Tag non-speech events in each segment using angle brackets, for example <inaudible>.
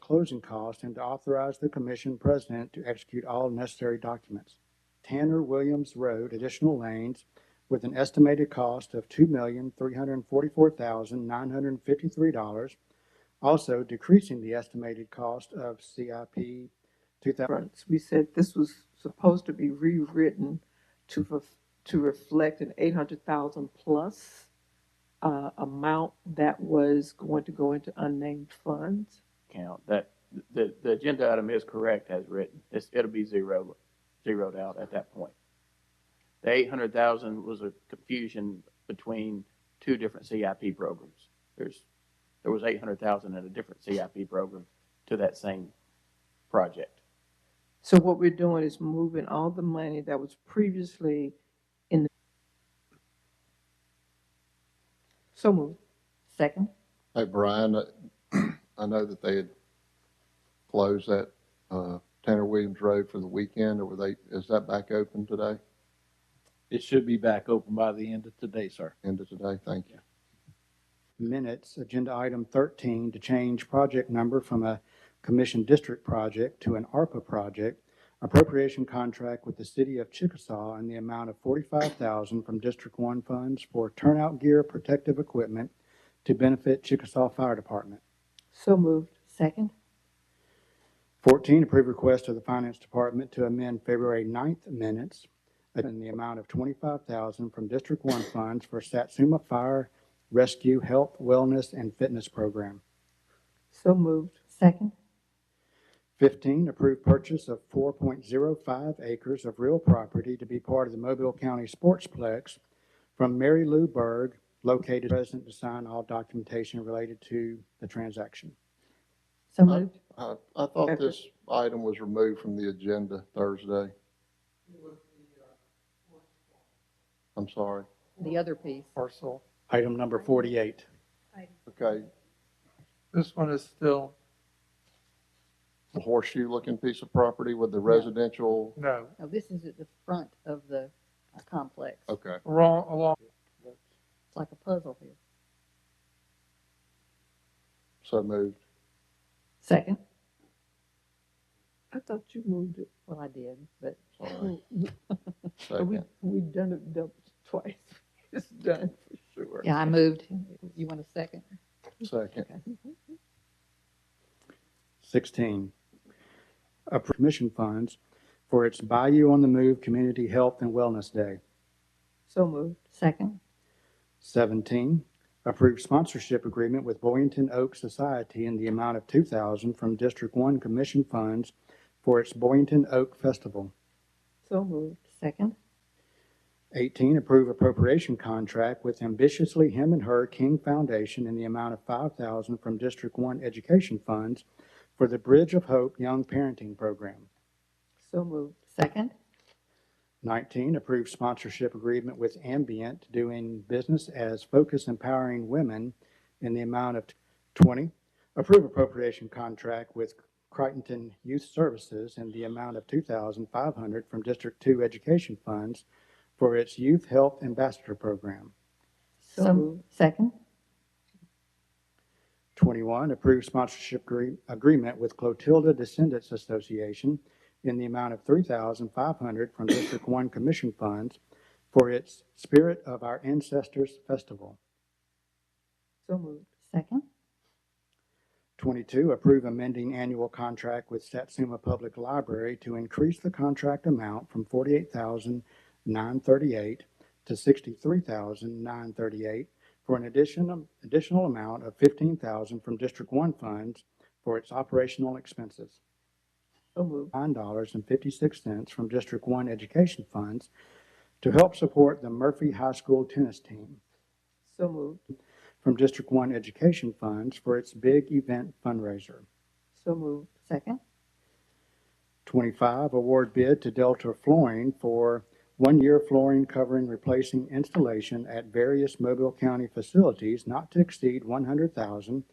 closing costs and to authorize the commission president to execute all necessary documents. Tanner Williams Road, additional lanes with an estimated cost of two million, three hundred and forty-four thousand, nine hundred and fifty-three dollars. Also decreasing the estimated cost of CIP two thousand. reference. We said this was supposed to be rewritten to, ref- to reflect an eight hundred thousand plus uh, amount that was going to go into unnamed funds. count. That, the, the agenda item is correct as written. It's, it'll be zero, zeroed out at that point. The eight hundred thousand was a confusion between two different CIP programs. There's, there was eight hundred thousand in a different CIP program to that same project. So what we're doing is moving all the money that was previously in the. So moved. Second? Hey, Brian, I- <clears throat> I know that they had closed that uh, Tanner Williams Road for the weekend, or were they, is that back open today, It should be back open by the end of today, sir. end of today? Thank you. minutes, agenda item thirteen, to change project number from a commission district project to an ARPA project, appropriation contract with the city of Chickasaw in the amount of forty-five thousand from District One funds for turnout gear protective equipment to benefit Chickasaw Fire Department. So moved. Second? Fourteen, approve request of the Finance Department to amend February 9th minutes in the amount of twenty-five thousand from District One funds for Satsuma Fire Rescue Health, Wellness, and Fitness Program. So moved. Second? 15, approve purchase of 4.05 acres of real property to be part of the Mobile County Sportsplex from Mary Lou Berg, located present to sign all documentation related to the transaction. So moved? I I thought this item was removed from the agenda Thursday. I'm sorry. The other piece. parcel. Item number 48. Okay, This one is still, the horseshoe-looking piece of property with the residential, no, No, this is at the front of the uh, complex. It's okay. wrong, along, like a puzzle here. So moved. Second? I thought you moved it. Well, I did, <clears throat> but Sorry. So We, Second. we done it dou- twice. <laughs> It's done for sure. yeah, I moved. You want a second? Second. 16, approve commission funds for its Bayou on the Move Community Health and Wellness Day. So moved. Second? 17, approve sponsorship agreement with Boynton Oak Society in the amount of 2000 from District 1 Commission funds for its Boynton Oak Festival. So moved. Second? 18, approve appropriation contract with ambitiously him and her King Foundation in the amount of 5000 from District 1 Education Funds for the Bridge of Hope Young Parenting Program. So moved. Second? 19, approve sponsorship agreement with Ambient doing business as Focus Empowering Women in the amount of 20. Approve appropriation contract with Crichton Youth Services in the amount of 2500 from District 2 Education Funds for its Youth Health Ambassador Program. So moved. Second? 21, approve sponsorship agree- agreement with Clotilda Descendants Association in the amount of 3500 from District 1 Commission funds for its Spirit of Our Ancestors Festival. So moved. Second? 22, approve amending annual contract with Satsuma Public Library to increase the contract amount from 48938 to 63938 for an addition- additional amount of 15000 from District 1 funds for its operational expenses. So moved. nine dollars and fifty-six cents from District One Education Funds to help support the Murphy High School tennis team So moved. from District One Education Funds for its big event fundraiser. So moved. Second? Twenty-five, award bid to Delta Flooring for one-year flooring covering replacing installation at various Mobile County facilities not to exceed one hundred thousand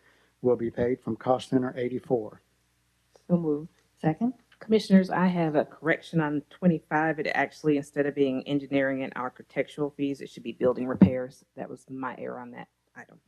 will be paid from cost center eighty-four. So moved. Second? Commissioners, I have a correction on 25. It actually, instead of being engineering and architectural fees, it should be building repairs. That was my error on that item.